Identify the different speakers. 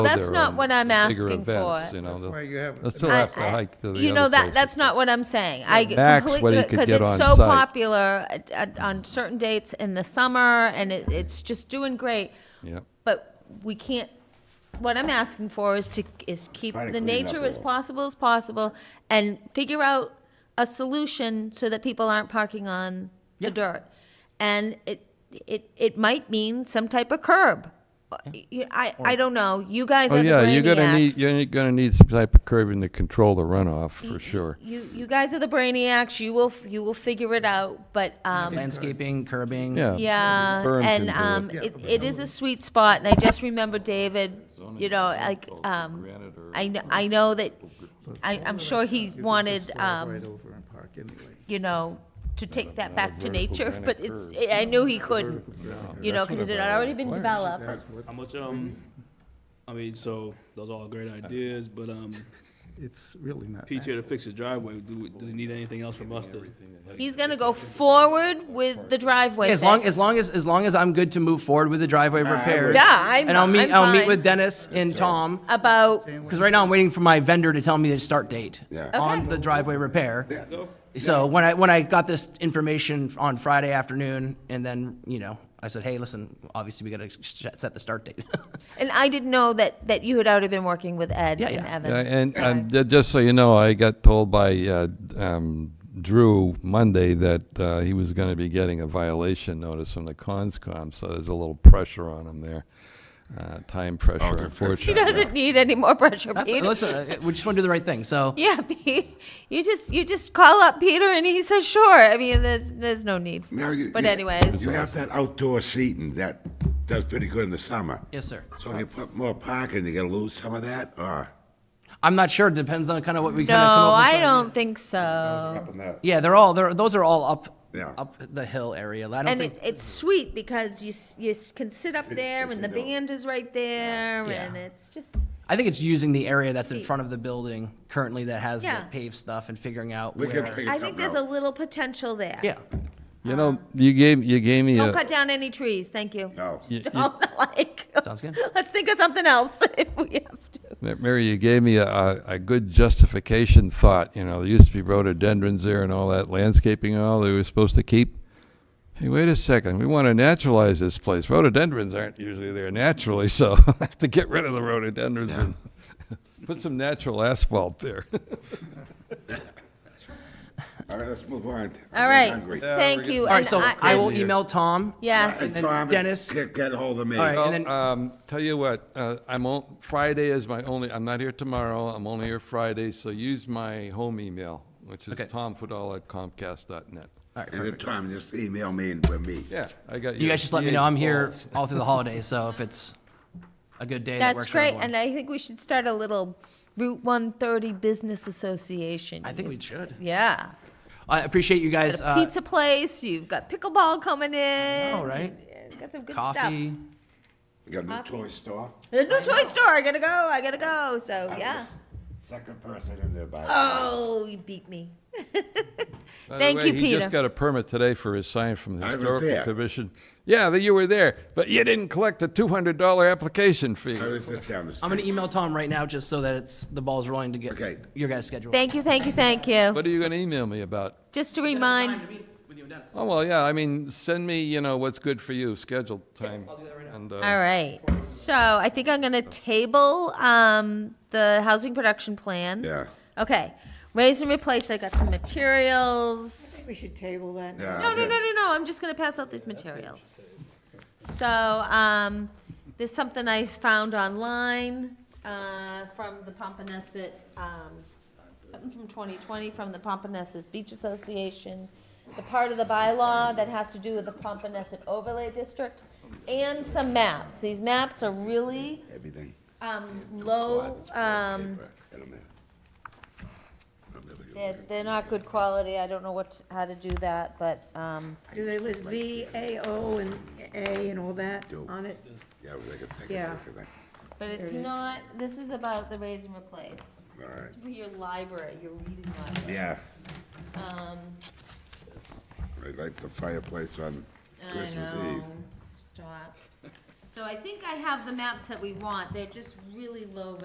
Speaker 1: That's
Speaker 2: there
Speaker 1: not
Speaker 2: are
Speaker 1: what I'm
Speaker 2: bigger
Speaker 1: asking
Speaker 2: events,
Speaker 1: for.
Speaker 2: You know,
Speaker 3: That's why you
Speaker 2: they'll
Speaker 3: have-
Speaker 2: they'll still
Speaker 1: I-
Speaker 2: have to
Speaker 1: I-
Speaker 2: hike to the other
Speaker 1: You know, that,
Speaker 2: places.
Speaker 1: that's not what I'm saying. I g-
Speaker 2: Max, what
Speaker 1: completely,
Speaker 2: he could
Speaker 1: because
Speaker 2: get
Speaker 1: it's
Speaker 2: on
Speaker 1: so
Speaker 2: site.
Speaker 1: popular at- at- on certain dates in the summer, and it, it's just doing great.
Speaker 2: Yeah,
Speaker 1: But we can't, what I'm asking for is to, is keep
Speaker 4: Try to
Speaker 1: the
Speaker 4: clean it up
Speaker 1: nature
Speaker 4: a
Speaker 1: as
Speaker 4: little.
Speaker 1: possible as possible, and figure out a solution so that people aren't parking on the dirt. And it, it, it might mean some type of curb. You- I, I don't know, you guys
Speaker 2: oh
Speaker 1: are the
Speaker 2: yeah, you're gonna need,
Speaker 1: brainiacs.
Speaker 2: you're gonna need some type of curbing to control the runoff, for sure.
Speaker 1: You, you guys are the brainiacs. You will, f- you will figure it out. But um,
Speaker 5: Landscaping, curbing.
Speaker 2: Yeah.
Speaker 1: yeah,
Speaker 2: Berm can
Speaker 1: and
Speaker 2: do it.
Speaker 1: um,
Speaker 3: Yeah,
Speaker 1: it,
Speaker 3: but
Speaker 1: it is a sweet spot. And I just remember David. You know, like um, I know, I know that I, I'm sure he
Speaker 3: You could just
Speaker 1: wanted
Speaker 3: drive
Speaker 1: um,
Speaker 3: Right over and park anyway.
Speaker 1: you know, to take that back to
Speaker 2: vertical
Speaker 1: nature.
Speaker 2: granite
Speaker 1: But it's, I knew he couldn't. You know, because it had already been developed.
Speaker 3: That's what,
Speaker 6: How much, um, I mean, so those are all great ideas, but, um,
Speaker 3: it's really not.
Speaker 6: Pete's here to fix his driveway. Do, we- does he need anything else from us to?
Speaker 1: He's gonna go forward with the driveway.
Speaker 5: As long,
Speaker 1: fix.
Speaker 5: as long as, as long as I'm good to move forward with the driveway repairs.
Speaker 1: Yeah, I'm-
Speaker 5: And I'll meet,
Speaker 1: I'm
Speaker 5: I'll meet
Speaker 1: fine.
Speaker 5: with Dennis and Tom,
Speaker 1: about
Speaker 5: because right now I'm waiting for my vendor to tell me the start date.
Speaker 4: Yeah.
Speaker 5: On the driveway repair. So when I, when I got this information on Friday afternoon, and then, you know, I said, hey, listen, obviously we gotta sh- set the start date.
Speaker 1: And I didn't know that, that you had already been working with Ed
Speaker 5: Yeah,
Speaker 1: and
Speaker 5: yeah.
Speaker 1: Evan.
Speaker 2: Yeah, and,
Speaker 1: so
Speaker 2: and ju- just so you know, I got told by uh, um, Drew Monday that uh, he was going to be getting a violation notice from the conscom, so there's a little pressure on him there, uh, time
Speaker 3: Oh,
Speaker 2: pressure,
Speaker 4: to fix that.
Speaker 1: He
Speaker 2: unfortunately.
Speaker 1: doesn't need any more pressure,
Speaker 5: That's,
Speaker 1: Peter.
Speaker 5: listen, uh, we just wanna do the right thing, so.
Speaker 1: Yeah, Pete, you just you just call up Peter and he says sure. I mean, there's there's no need. For,
Speaker 4: Now you-
Speaker 1: but
Speaker 4: you-
Speaker 1: anyways,
Speaker 4: You have that outdoor seating that does pretty good in the summer.
Speaker 5: Yes, sir.
Speaker 4: So if you put more parking, you gonna lose some of that, or?
Speaker 5: I'm not sure, depends on kind of what we
Speaker 1: no,
Speaker 5: kind of come up with.
Speaker 1: I
Speaker 5: some-
Speaker 1: don't think so.
Speaker 4: Up in that-
Speaker 5: Yeah, they're all, they're, those are all up,
Speaker 4: Yeah.
Speaker 5: up the hill area. I don't
Speaker 1: And
Speaker 5: think.
Speaker 1: it, it's sweet because you s- you s- can sit up there and the
Speaker 4: it's indoor.
Speaker 1: band is right there
Speaker 5: Yeah.
Speaker 1: and it's just
Speaker 5: I think it's using the area that's in
Speaker 1: Sweet.
Speaker 5: front of the building currently that has
Speaker 1: Yeah.
Speaker 5: the paved stuff and figuring out
Speaker 4: We can
Speaker 5: where.
Speaker 4: figure
Speaker 1: I think
Speaker 4: something
Speaker 1: there's a
Speaker 4: out.
Speaker 1: little potential there.
Speaker 5: Yeah,
Speaker 2: You know, you gave, you gave me
Speaker 1: Don't
Speaker 2: a,
Speaker 1: cut down any trees, thank you.
Speaker 4: No.
Speaker 1: Don't like.
Speaker 5: Sounds good.
Speaker 1: Let's think of something else if we have to.
Speaker 2: Ma- Mary, you gave me a- a, a good justification thought, you know, there used to be rhododendrons there and all that landscaping and all that we were supposed to keep. Hey, wait a second, we want to naturalize this place. Rhododendrons aren't usually there naturally, so I have to get rid of the rhododendrons and put some natural asphalt there.
Speaker 4: All right, let's move on.
Speaker 1: All right,
Speaker 4: Hungry.
Speaker 1: thank you.
Speaker 5: All right,
Speaker 1: and
Speaker 5: so I will email Tom.
Speaker 1: Yes,
Speaker 4: And
Speaker 5: then
Speaker 4: Tom,
Speaker 5: Dennis-
Speaker 4: Get, get hold of me.
Speaker 5: All right.
Speaker 2: Well,
Speaker 5: then-
Speaker 2: um, tell you what, uh, I'm on, Friday is my only, I'm not here tomorrow, I'm only here Friday, so use my home email, which is
Speaker 5: Okay.
Speaker 2: tomfidel@comcast.net.
Speaker 4: And then Tom, just email me and with me.
Speaker 2: Yeah, I got
Speaker 5: You
Speaker 2: your
Speaker 5: guys just let me
Speaker 2: DH
Speaker 5: know. I'm here
Speaker 2: balls.
Speaker 5: all through the holidays, so if it's a good day, that
Speaker 1: that's
Speaker 5: works for
Speaker 1: great.
Speaker 5: everyone.
Speaker 1: And I think we should start a little Route 130 Business Association.
Speaker 5: I think we should.
Speaker 1: Yeah.
Speaker 5: I appreciate you guys.
Speaker 1: Got a
Speaker 5: Uh,
Speaker 1: pizza place, you've got pickleball coming in.
Speaker 5: know, right?
Speaker 1: you- you Got some good stuff.
Speaker 5: coffee.
Speaker 4: You got a new toy store?
Speaker 1: There's no toy store, I gotta go, I gotta go, so,
Speaker 4: I'm
Speaker 1: yeah.
Speaker 4: the Second person in there by.
Speaker 1: Oh, you beat me.
Speaker 2: By the
Speaker 1: Thank
Speaker 2: way,
Speaker 1: you,
Speaker 2: He just
Speaker 1: Peter.
Speaker 2: got a permit today for his sign from the
Speaker 4: I was
Speaker 2: Historical
Speaker 4: there.
Speaker 2: Commission. Yeah, that you were there, but you didn't collect the two hundred dollar application fee.
Speaker 4: I was just down the street.
Speaker 5: I'm gonna email Tom right now just so that it's the ball's rolling to get
Speaker 4: Okay.
Speaker 5: your guys' schedule.
Speaker 1: Thank you, thank you, thank you.
Speaker 2: What are you gonna email me about?
Speaker 1: Just to remind,
Speaker 2: Oh, well, yeah, I mean, send me, you know, what's good for you, scheduled time. And,
Speaker 1: all
Speaker 2: uh,
Speaker 1: right, so I think I'm gonna table, um, the housing production plan.
Speaker 4: Yeah,
Speaker 1: Okay, raise and replace, I got some materials.
Speaker 7: We should table that.
Speaker 5: e-
Speaker 4: yeah.
Speaker 1: No, no, no, no, no, I'm just gonna pass out these materials. So, um, there's something I found online, uh, from the Pompanesset, um, something from twenty twenty from the Pompanesset Beach Association. The part of the bylaw that has to do with the Pompanesset overlay district and some maps. These maps are really,
Speaker 4: Everything.
Speaker 1: um, low, um,
Speaker 4: Get 'em there. I'm never gonna-
Speaker 1: they're, they're not good quality. I don't know what, how to do that, but, um,
Speaker 7: Do they list V, A, O, and A and all that on it?
Speaker 4: Yeah, we're like a second
Speaker 7: Yeah.
Speaker 4: person.
Speaker 1: But it's not, this is about the raise and replace.
Speaker 4: Alright.
Speaker 1: It's for your library, your reading library.
Speaker 4: Yeah. I like the fireplace on
Speaker 1: I
Speaker 4: Christmas
Speaker 1: know,
Speaker 4: Eve.
Speaker 1: Stop. So I think I have the maps that we want, they're just really low